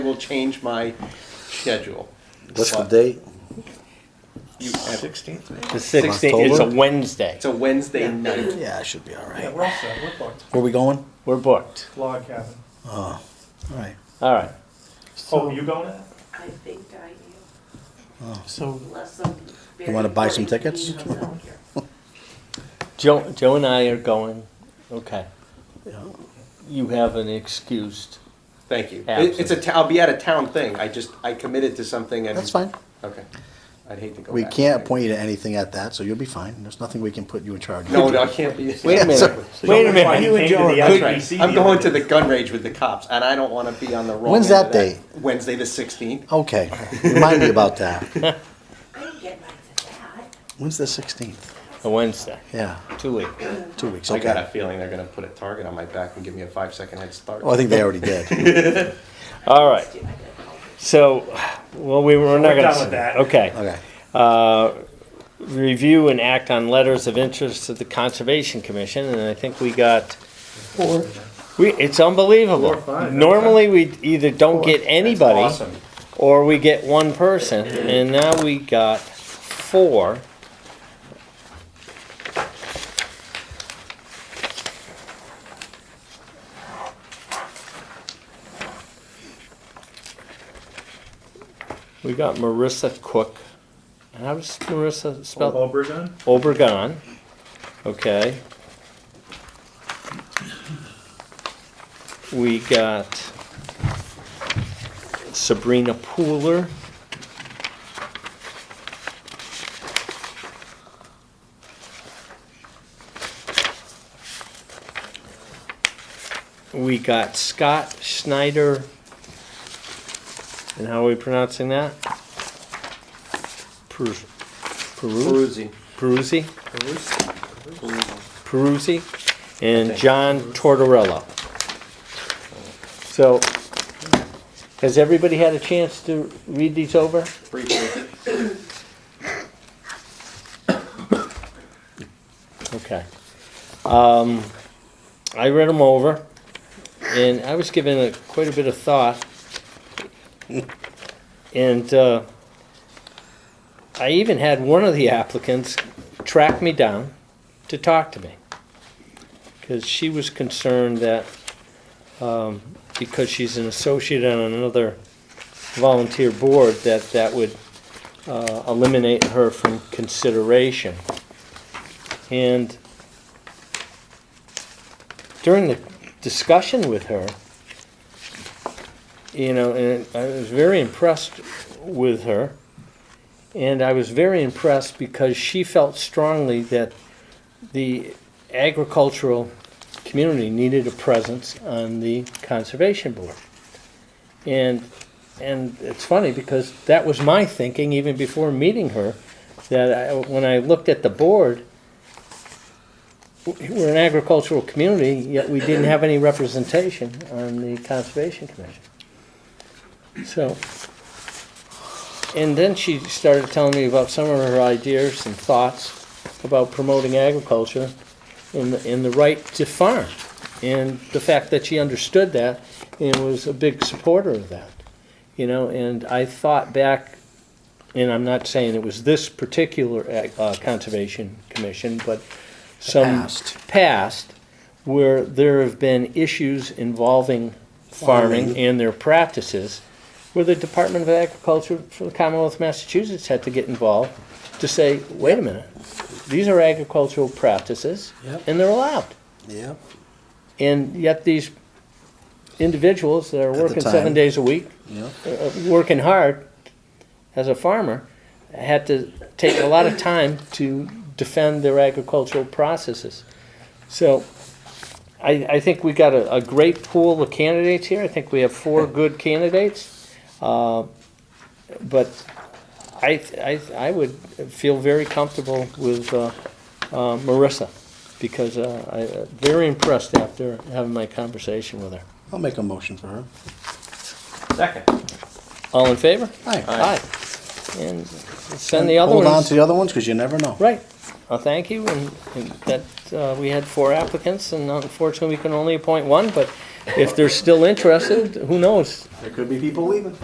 will change my schedule. What's the date? Sixteenth, The It's a Wednesday. It's a Wednesday night. Yeah, I should be all Yeah, right. we're all set, we're booked. Where we going? We're booked. Log cabin. All right. All right. Oh, you going to? I think I am, So, unless some. You wanna buy some tickets? Joe, Joe and I are going. Okay. Yeah. You have an excused. Thank you. It- It's a, Absent. t- I'll be at a town thing. I just, I committed to something and. That's fine. Okay. I'd hate to go We back. can't appoint you to anything at that, so you'll be fine. There's nothing we can put you in charge of. No, no, I can't be. Wait a minute. Wait a minute. You and Joe are That's right. I'm going to the gun rage with the cops and I don't wanna be on the wrong. When's end of that day? Wednesday the sixteenth. Okay, remind me about that. I didn't get mine to that. When's the 16th? A Wednesday. Yeah, Two weeks. two weeks, I got a okay. feeling they're gonna put a target on my back and give me a five second head start. Oh, I think they already did. All right. Dude, I gotta call her. So, well, we were not going We're done with that. Okay. Okay. Uh, review and act on letters of interest to the Conservation Commission, and I think we got. We, it's unbelievable. Four, five, Normally, we either don't get anybody. Awesome. or we get one person, and now we got four. We got Marissa Cook. How does Marissa Oh, spell? Obregon? Obregon. Okay. We got Sabrina Pooler. We got Scott Schneider. And how are we pronouncing that? Perus- Peru? Peruzzi. Peruzzi? Peruzzi and John Tortorella. So, has everybody had a chance to read these over? Briefly. Okay. Um, I read them over, and I was given a, quite a bit of thought. And, uh, I even had one of the applicants track me down to talk to me. Cause she was concerned that, um, because she's an associate on another volunteer board, that that would, uh, eliminate her from consideration. And during the discussion with her, you know, and I was very impressed with her. And I was very impressed because she felt strongly that the agricultural community needed a presence on the conservation board. And and it's funny because that was my thinking even before meeting her that I, when I looked at the board, we're an agricultural community, yet we didn't have any representation on the Conservation Commission. So, and then she started telling me about some of her ideas and thoughts about promoting agriculture and, the- and the right to farm. And the fact that she understood that and was a big supporter of that. You know, and I thought back and I'm not saying it was this particular ag- uh, Conservation Commission, but some past. past where there have been issues involving farming and their practices, where the Department of Agriculture for the Commonwealth of Massachusetts had to get involved to say, wait a minute, these are agricultural practices, Yep. and they're allowed. Yep. And yet these individuals that are the working time. seven days a week Yep. uh, working hard as a farmer had to take a lot of time to defend their agricultural processes. So I, I think we got a, a great pool of candidates here. I think we have four good candidates. Uh, but I, I, I would feel very comfortable with uh, uh, Marissa because uh, I uh, very impressed after having my conversation with her. I'll make a motion for her. Second. All in favor? Aye. Aye. And send the other Hold on to ones. the other ones, because you never know. Right. Well, thank you, and, and that, uh, we had four applicants, and unfortunately, we can only appoint one, but if they're still interested, who knows? There could be people leaving.